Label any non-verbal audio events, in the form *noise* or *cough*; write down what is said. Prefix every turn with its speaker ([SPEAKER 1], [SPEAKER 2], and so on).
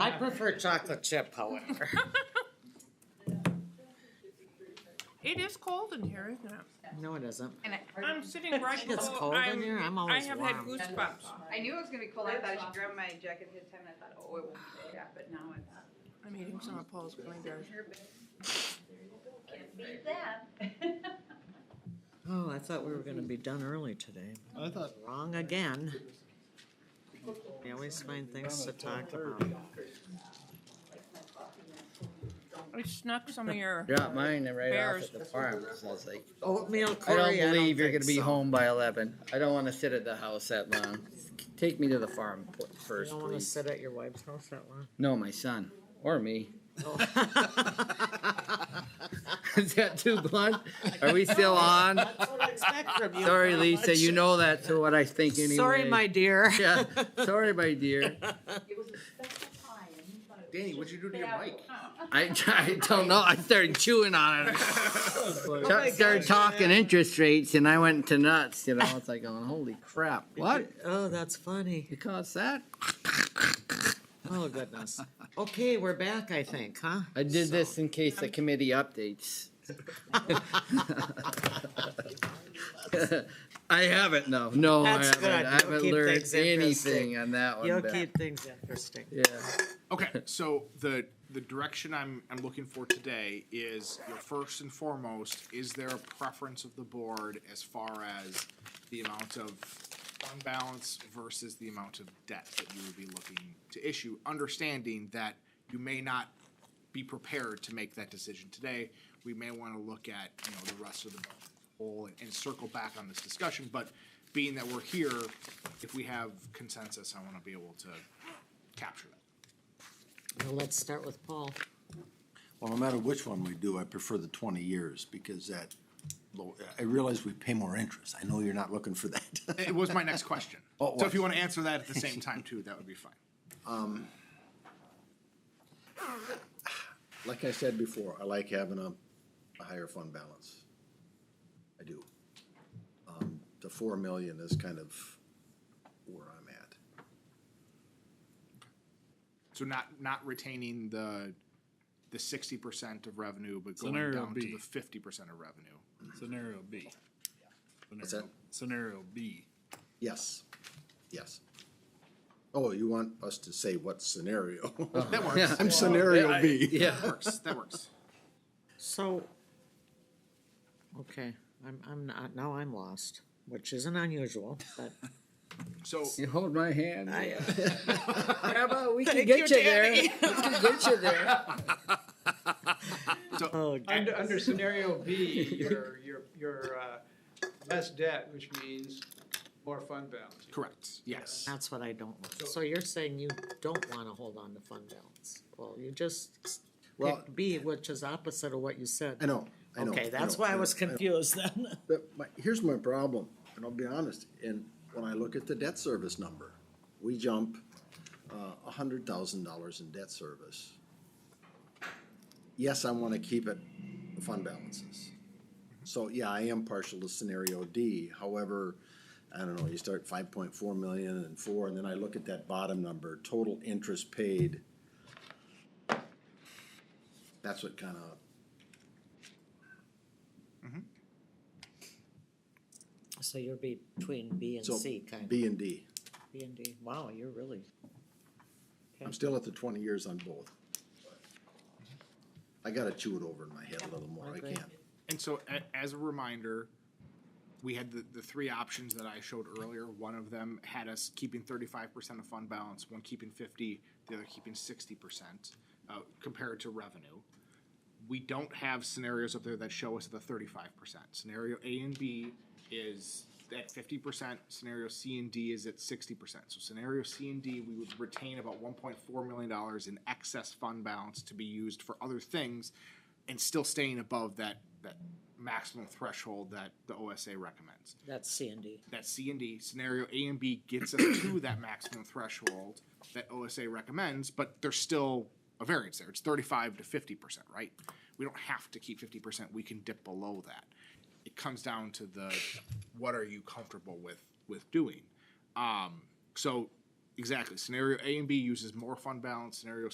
[SPEAKER 1] I prefer chocolate chip, however.
[SPEAKER 2] It is cold in here, isn't it?
[SPEAKER 1] No, it isn't.
[SPEAKER 3] And I,
[SPEAKER 2] I'm sitting right
[SPEAKER 1] It gets
[SPEAKER 2] below,
[SPEAKER 1] cold in
[SPEAKER 2] I'm,
[SPEAKER 1] here, I'm
[SPEAKER 2] I
[SPEAKER 1] always
[SPEAKER 2] have had
[SPEAKER 1] warm.
[SPEAKER 2] goosebumps.
[SPEAKER 3] I knew it was gonna be cold, I thought I should grab my jacket ahead of time, and I thought, oh, it won't be that, but now it's.
[SPEAKER 2] I'm eating some of Paul's blueberries.
[SPEAKER 3] Can't beat that.
[SPEAKER 1] Oh, I thought we were gonna be done early today.
[SPEAKER 4] I thought
[SPEAKER 1] Wrong again. We always find things to talk about.
[SPEAKER 2] I snuck some of your,
[SPEAKER 4] Dropped mine right off
[SPEAKER 2] Bears.
[SPEAKER 4] at the farm. I was like,
[SPEAKER 1] Oatmeal
[SPEAKER 4] I
[SPEAKER 1] Cory,
[SPEAKER 4] don't believe you're
[SPEAKER 1] think
[SPEAKER 4] gonna be
[SPEAKER 1] so.
[SPEAKER 4] home by eleven. I don't wanna sit at the house that long. Take me to the farm po-
[SPEAKER 1] You
[SPEAKER 4] first,
[SPEAKER 1] don't wanna
[SPEAKER 4] please.
[SPEAKER 1] sit at your wife's house that long.
[SPEAKER 4] No, my son, or me.
[SPEAKER 1] Oh.
[SPEAKER 4] *laughs* Is that too blunt? Are we still on? Sorry, Lisa, you know that's what I think anyway.
[SPEAKER 1] Sorry, my *laughs* dear.
[SPEAKER 4] *laughs* Yeah, sorry, my dear.
[SPEAKER 5] It was a special time, but it
[SPEAKER 6] Danny, what'd you do to your mic?
[SPEAKER 4] I, I don't know. I started chewing
[SPEAKER 1] *laughs*
[SPEAKER 4] on it.
[SPEAKER 1] Oh
[SPEAKER 4] Chuck started talking interest rates, and I went to nuts. You know, it's like, going, holy crap, what?
[SPEAKER 1] Oh, that's funny.
[SPEAKER 4] You caused that?
[SPEAKER 1] Oh, goodness. Okay, we're back, I think, huh?
[SPEAKER 4] I did this in case the committee updates. *laughs* I haven't. No, no, I
[SPEAKER 1] That's
[SPEAKER 4] haven't.
[SPEAKER 1] good.
[SPEAKER 4] I haven't
[SPEAKER 1] You'll keep
[SPEAKER 4] learned
[SPEAKER 1] things
[SPEAKER 4] anything
[SPEAKER 1] interesting.
[SPEAKER 4] on that one.
[SPEAKER 1] You'll
[SPEAKER 4] but-
[SPEAKER 1] keep things interesting.
[SPEAKER 4] Yeah.
[SPEAKER 6] Okay, so the the direction I'm I'm looking for today is you know, first and foremost, is there a preference of the board as far as the amount of fund balance versus the amount of debt that you would be looking to issue, understanding that you may not be prepared to make that decision today. We may want to look at, you know, the rest of the whole and- and circle back on this discussion, but being that we're here, if we have consensus, I want to be able to capture that.
[SPEAKER 1] Well, let's start with Paul.
[SPEAKER 7] Well, no matter which one we do, I prefer the twenty years because that, low- I realize we pay more interest. I know you're not looking for that. *laughs*
[SPEAKER 6] It was my next question.
[SPEAKER 7] Oh, it
[SPEAKER 6] So if you
[SPEAKER 7] was.
[SPEAKER 6] want to answer that at the same time too, that would be fine.
[SPEAKER 7] Like I said before, I like having a, a higher fund balance. I do. Um, the four million is kind of where I'm at.
[SPEAKER 6] So not, not retaining the, the sixty percent of revenue, but going
[SPEAKER 8] Scenario
[SPEAKER 6] down to
[SPEAKER 8] B.
[SPEAKER 6] the fifty percent of revenue.
[SPEAKER 8] Scenario B.
[SPEAKER 7] What's
[SPEAKER 8] Scenario-
[SPEAKER 7] that?
[SPEAKER 8] Scenario B.
[SPEAKER 7] Yes, yes. Oh, you want us to say what scenario?
[SPEAKER 1] Uh-huh.
[SPEAKER 6] That works.
[SPEAKER 7] *laughs* I'm scenario B.
[SPEAKER 4] *laughs* Yeah.
[SPEAKER 6] That works, that works.
[SPEAKER 1] So, okay, I'm, I'm not, now I'm lost, which isn't unusual,
[SPEAKER 7] *laughs*
[SPEAKER 1] but.
[SPEAKER 6] So,
[SPEAKER 4] You hold my hand.
[SPEAKER 1] I,
[SPEAKER 4] *laughs* Grandma,
[SPEAKER 1] *laughs*
[SPEAKER 4] we can
[SPEAKER 1] Thank
[SPEAKER 4] get
[SPEAKER 1] you,
[SPEAKER 4] you there. We can get you there.
[SPEAKER 1] *laughs* oh,
[SPEAKER 9] Under, under scenario B, you're, you're, you're, uh, less debt, which means more fund balance.
[SPEAKER 6] correct, yes.
[SPEAKER 1] That's what I don't want. So you're saying you don't wanna hold on to fund balance? Well, you just
[SPEAKER 7] Well-
[SPEAKER 1] picked B, which is opposite of what you said.
[SPEAKER 7] I know, I know.
[SPEAKER 1] Okay,
[SPEAKER 7] I
[SPEAKER 1] that's
[SPEAKER 7] know,
[SPEAKER 1] why I
[SPEAKER 7] know,
[SPEAKER 1] was
[SPEAKER 7] know.
[SPEAKER 1] confused
[SPEAKER 7] *laughs*
[SPEAKER 1] then.
[SPEAKER 7] But my, here's my problem, and I'll be honest, and when I look at the debt service number, we jump uh, a hundred thousand dollars in debt service. Yes, I wanna keep it fund balances. So, yeah, I am partial to scenario D, however, I don't know, you start five point four million and four, and then I look at that bottom number, total interest paid. That's what kinda
[SPEAKER 1] So you're be- between B and
[SPEAKER 7] So,
[SPEAKER 1] C, kind of, B
[SPEAKER 7] B and D.
[SPEAKER 1] and D. Wow, you're really,
[SPEAKER 7] I'm still at the twenty years on both. I gotta chew it over in my head a little more, I
[SPEAKER 1] Okay.
[SPEAKER 7] can't.
[SPEAKER 6] And so a- as a reminder, we had the, the three options that I showed earlier. One of them had us keeping thirty-five percent of fund balance, one keeping fifty, the other keeping sixty percent, uh, compared to revenue. We don't have scenarios up there that show us the thirty-five percent. Scenario A and B is at fifty percent, scenario C and D is at sixty percent. So scenario C and D, we would retain about one point four million dollars in excess fund balance to be used for other things and still staying above that, that maximum threshold that the OSA recommends
[SPEAKER 1] that's C and D.
[SPEAKER 6] that C and D scenario A and B gets us to that maximum threshold that OSA recommends, but there's still a variance there. It's 35 to 50 percent, right? We don't have to keep 50 percent. We can dip below that. It comes down to the what are you comfortable with with doing. Um, so exactly, scenario A and B uses more fund balance. Scenario